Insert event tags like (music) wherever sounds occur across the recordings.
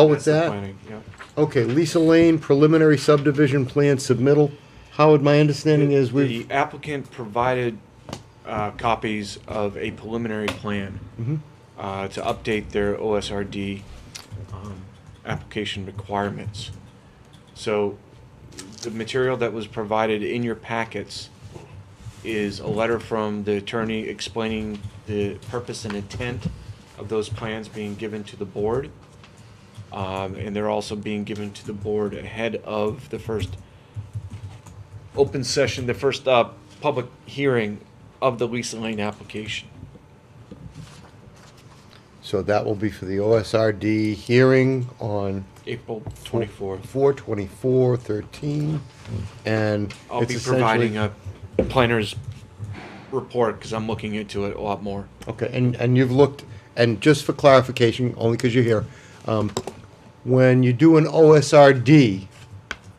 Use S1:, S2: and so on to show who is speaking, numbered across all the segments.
S1: Oh, it's
S2: master
S1: that?
S2: planning, yeah.
S1: Okay, Lisa Lane preliminary subdivision plan submittal. Howard, my understanding is
S2: The
S1: we've,
S2: applicant provided uh, copies of a preliminary plan
S1: Mm-hmm.
S2: uh, to update their OSRD um, application requirements. So the material that was provided in your packets is a letter from the attorney explaining the purpose and intent of those plans being given to the board. Um, And they're also being given to the board ahead of the first open session, the first uh, public hearing of the Lisa Lane application.
S1: so that will be for the OSRD hearing on
S2: April 24th.
S1: four twenty-four thirteen, and
S2: I'll
S1: it's
S2: be providing
S1: essentially-
S2: a planner's report because I'm looking into it a lot more.
S1: Okay, and, and you've looked, and just for clarification, only because you're here, um, when you do an OSRD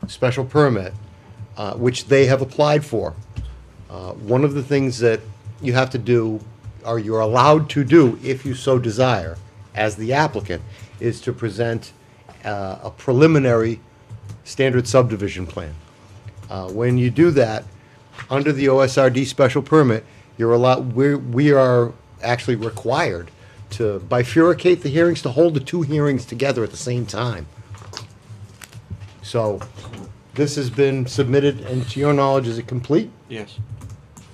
S1: special permit, uh, which they have applied for, uh, one of the things that you have to do, or you're allowed to do, if you so desire, as the applicant, is to present uh, a preliminary standard subdivision plan. Uh, When you do that, under the OSRD special permit, you're allowed, we're, we are actually required to bifurcate the hearings, to hold the two hearings together at the same time. So, this has been submitted, and to your knowledge, is it complete?
S2: Yes.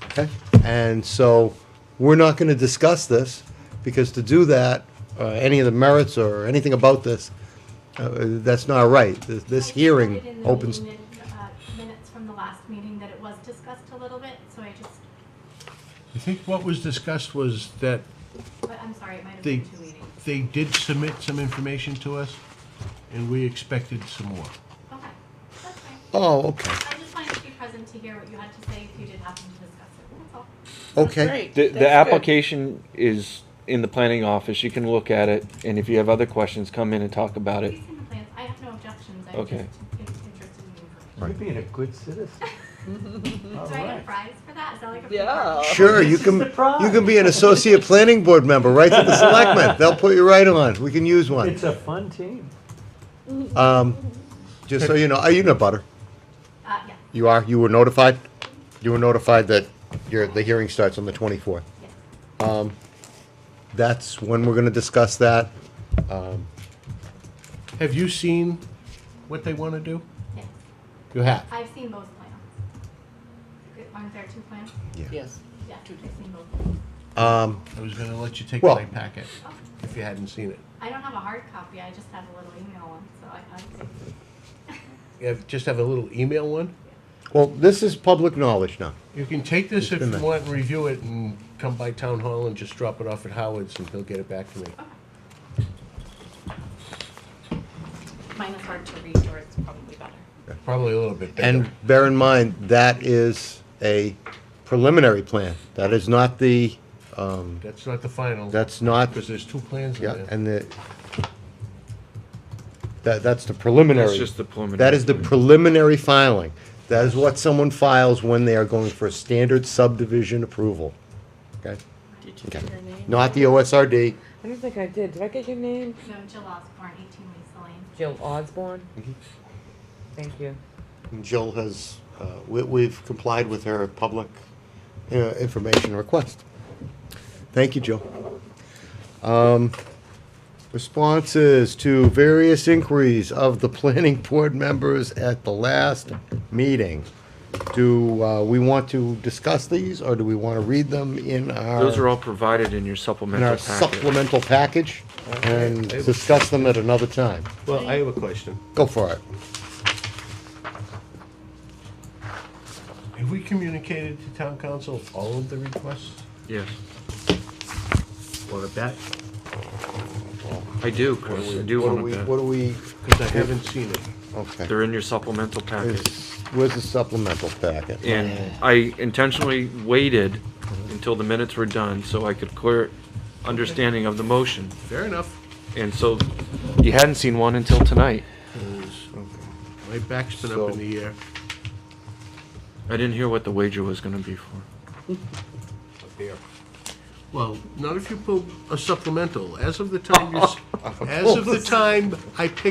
S1: Okay. And so, we're not gonna discuss this, because to do that, uh, any of the merits or anything about this, uh, that's not right. This, this
S3: I
S1: hearing
S3: put it in the
S1: opens.
S3: meeting min- uh, Minutes from the last meeting that it was discussed a little bit, so I just,
S4: I think what was discussed was that
S3: but I'm sorry, it might have
S4: they,
S3: been two meetings.
S4: they did submit some information to us, and we expected some more.
S3: Okay, that's fine.
S1: Oh, okay,
S3: I just wanted to be present to hear what you had to say if you did happen to discuss it, that's all.
S1: okay.
S2: The, the application is in the planning office. You can look at it. And if you have other questions, come in and talk about it.
S3: Please see the plans, I have no objections, I'm just
S2: Okay.
S3: in- interested in the information.
S5: You're being a good citizen. All
S3: Do I get a
S5: right.
S3: prize for that? Is that like a? free
S6: Yeah.
S3: party?
S1: Sure, you
S5: This is
S1: can,
S5: the prize.
S1: you can be an associate planning board member, right to the selectmen, they'll put you right on, we can use one.
S5: It's a fun team.
S1: Um, just so you know, are you in a butter?
S3: Uh, yeah,
S1: You are, you were notified? You were notified that your, the hearing starts on the twenty-fourth. Um,
S3: yeah.
S1: That's when we're gonna discuss that.
S4: Have you seen what they want to do?
S3: Yes,
S1: You have?
S3: I've seen both plans. Aren't there two plans?
S6: Yes.
S3: Yeah, I've seen both.
S1: Um,
S4: I was gonna let you take
S1: Well-
S4: my packet if you hadn't seen it.
S3: Oh, I don't have a hard copy, I just have a little email one, so I, I'll take it.
S4: You have, just have a little email one?
S1: well, this is public knowledge now.
S4: You can take this if
S1: been
S4: you
S1: there.
S4: want and review it and come by town hall and just drop it off at Howard's and he'll get it back to me.
S3: Mine is hard to read, yours is probably better.
S4: Probably a little bit better.
S1: And bear in mind, that is a preliminary plan, that is not the, um,
S4: That's not the final,
S1: that's not
S4: because there's two plans in
S1: Yeah,
S4: there.
S1: and the, that, that's the preliminary.
S2: That's just the preliminary.
S1: That is the preliminary filing. That is what someone files when they are going for a standard subdivision approval, okay?
S6: Did you get your name?
S1: Not the OSRD.
S7: I don't think I did. Did I get your name?
S3: No, Jill Osborne, 18 Lisa Lane.
S7: Jill Osborne?
S2: Mm-hmm.
S7: Thank you.
S1: Jill has, uh, we, we've complied with her public, uh, information request. Thank you, Jill. Um, responses to various inquiries of the (laughs) planning board members at the last meeting. Do, uh, we want to discuss these, or do we wanna read them in our?
S2: Those are all provided in your
S1: in
S2: supplemental
S1: our
S2: packet.
S1: supplemental package and discuss them at another time.
S4: Well, I have a question.
S1: Go for it.
S4: Have we communicated to town council all of the requests?
S2: Yes,
S4: Want a bet?
S2: I do, Chris. I do
S1: What do
S2: want
S1: we,
S2: to
S1: what do we,
S4: Because I haven't seen it.
S1: okay.
S2: They're in your supplemental packet.
S1: Is- Where's the supplemental packet?
S2: And I intentionally waited until the minutes were done so I could clear understanding of the motion.
S4: Fair enough.
S2: And so you hadn't seen one until tonight.
S4: 'cause My back's been
S1: So-
S4: up in the air.
S2: I didn't hear what the wager was gonna be for.
S4: Well, (laughs) not if you pull a supplemental. As of the time you, s- as of the time I picked